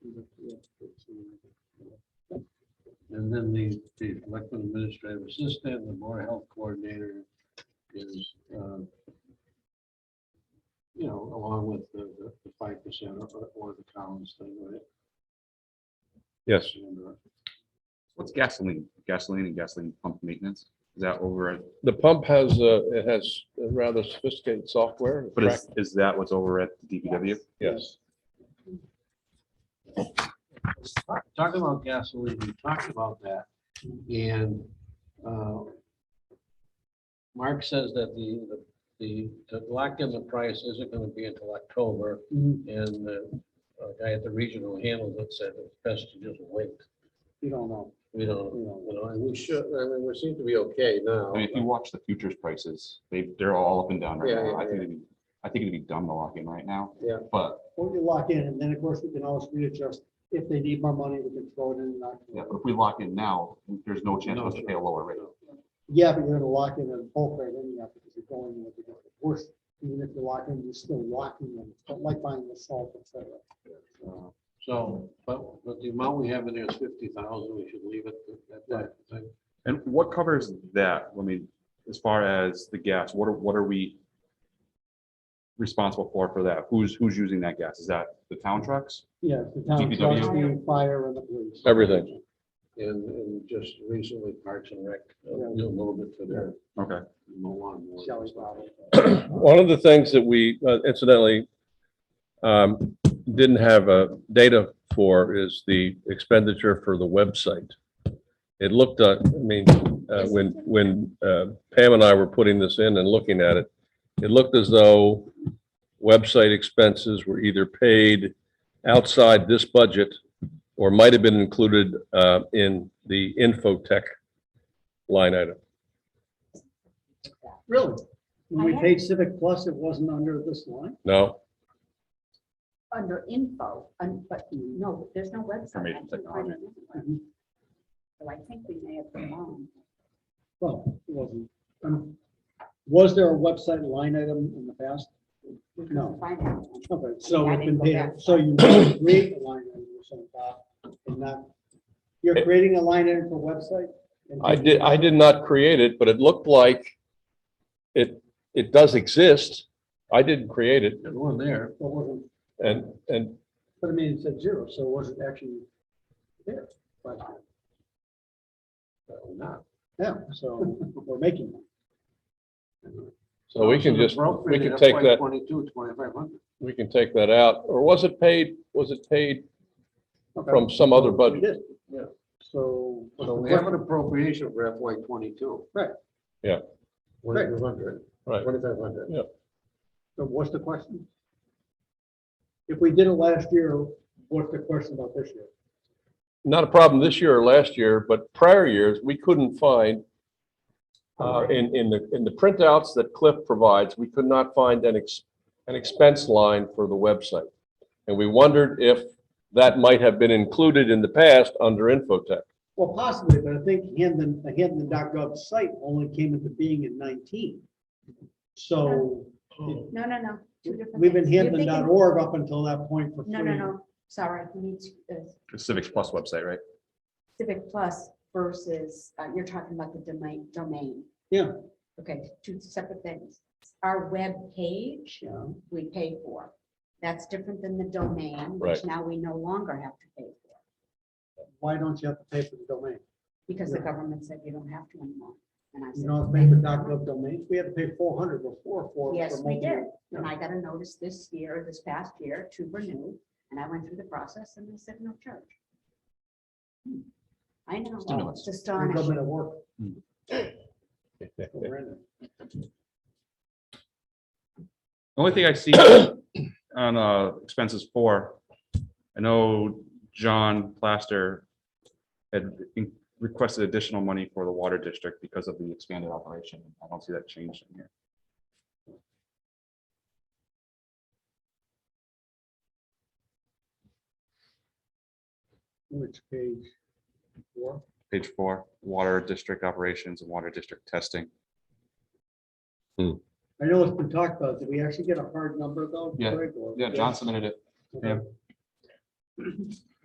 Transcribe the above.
And then the, the elected administrative assistant, the board health coordinator is, uh, you know, along with the, the- the five percent or, or the Collins thing, right? Yes, What's gasoline? Gasoline and gasoline pump maintenance? Is that over, at- the pump has, uh, it has rather sophisticated software. but is, is that what's over at the DPW? Yes, Talk- Talking about gasoline, we talked about that, and uh, Mark says that the, the, the lock in the price isn't gonna be until October, and the uh, guy at the regional handle that said it's best to just wait. You don't know. We don't, you know, and we should, I mean, we seem to be okay now. I mean, if you watch the futures prices, they, they're all up and down right Yeah, yeah, now. I think it'd be, I think it'd be dumb to lock in right now. Yeah. But, Or you lock in, and then, of course, we can always readjust. If they need more money, we can throw it in and not. yeah, but if we lock in now, there's no chance for us to pay a lower rate. Yeah, but you're gonna lock in a bulk rate anyhow, because you're going in with the worst. Even if you lock in, you're still locking them, but like buying the salt, et cetera. Uh, So, but, but the amount we have in there is fifty thousand, we should leave it at that. I think. And what covers that? I mean, as far as the gas, what are, what are we responsible for, for that? Who's, who's using that gas? Is that the town trucks? Yeah, the town DPW. trucks, the fire and the police. everything. And, and just recently Parks and Rec, uh, did a little bit for their Okay. Milan. War. Shelley's Bobby. One of the things that we uh, incidentally um, didn't have uh, data for is the expenditure for the website. It looked, uh, I mean, uh, when, when uh, Pam and I were putting this in and looking at it, it looked as though website expenses were either paid outside this budget or might have been included uh, in the infotech line item. Really? When we I paid Civic Plus, it wasn't under this line? No? under info, un- but no, there's no website. I Information can't find technology. it anywhere. So I think we may have been wrong. Well, it wasn't. Um, Was there a website line item in the past? We couldn't No. find it. Okay, so I it didn't can go be, back. so you can create a line item or something, Bob, and not, you're creating a line item for website? and- Eh. I did, I did not create it, but it looked like it, it does exist. I didn't create it There's one there. But wasn't, and, and but I mean, it said zero, so it wasn't actually there. But, but we're Not. yeah, so we're making one. so we can So the just, we appropriate can take FY that, Twenty-two, twenty-five hundred. we can take that out. Or was it paid, was it paid Okay. from some other It budget? is, yeah. So. what's So the we have an question? appropriation for FY twenty-two. Right. Yeah. Twenty-two hundred, Right. twenty-five hundred. So what's the question? If we did it last year, what's the question about this year? Not a problem this year or last year, but prior years, we couldn't find uh, in, in the, in the printouts that Cliff provides, we could not find an ex, an expense line for the website. And we wondered if that might have been included in the past under Infotech. Well, possibly, but I think uh, Hamden, the Hamden.gov site only came into being in nineteen. So No, no, no. two different we've been things. You're thinking- Hamden.org up until that point for free. No, no, no, sorry, you need to, uh, The Civics Plus website, right? Civic Plus versus, uh, you're talking about the domain, domain. Yeah. Okay, two separate things. Our web page Yeah. we pay for. That's different than the domain, Right. which now we no longer have to pay for, Why don't you have to pay for the domain? because the Yeah. government said you don't have to anymore. And I You said, don't have to pay for .gov domains. We had to pay four hundred before for. Yes, for we multiple- did. And I got a notice this year, this past year, to renew, and I went through the process and they said no charge. Hmm. I know, Stimulus. it's for astonishing. Government at work. Hmm. Horrendous. The Only thing I see on uh, expenses four, I know John Plaster had in- requested additional money for the water district because of the expanded operation. I don't see that changed in here. Which page? Four? Page four, water district operations and water district testing. I know it's been talked about. Did we actually get a hard number though? Yeah. Greg, or- Yeah, John submitted it. Okay. yeah.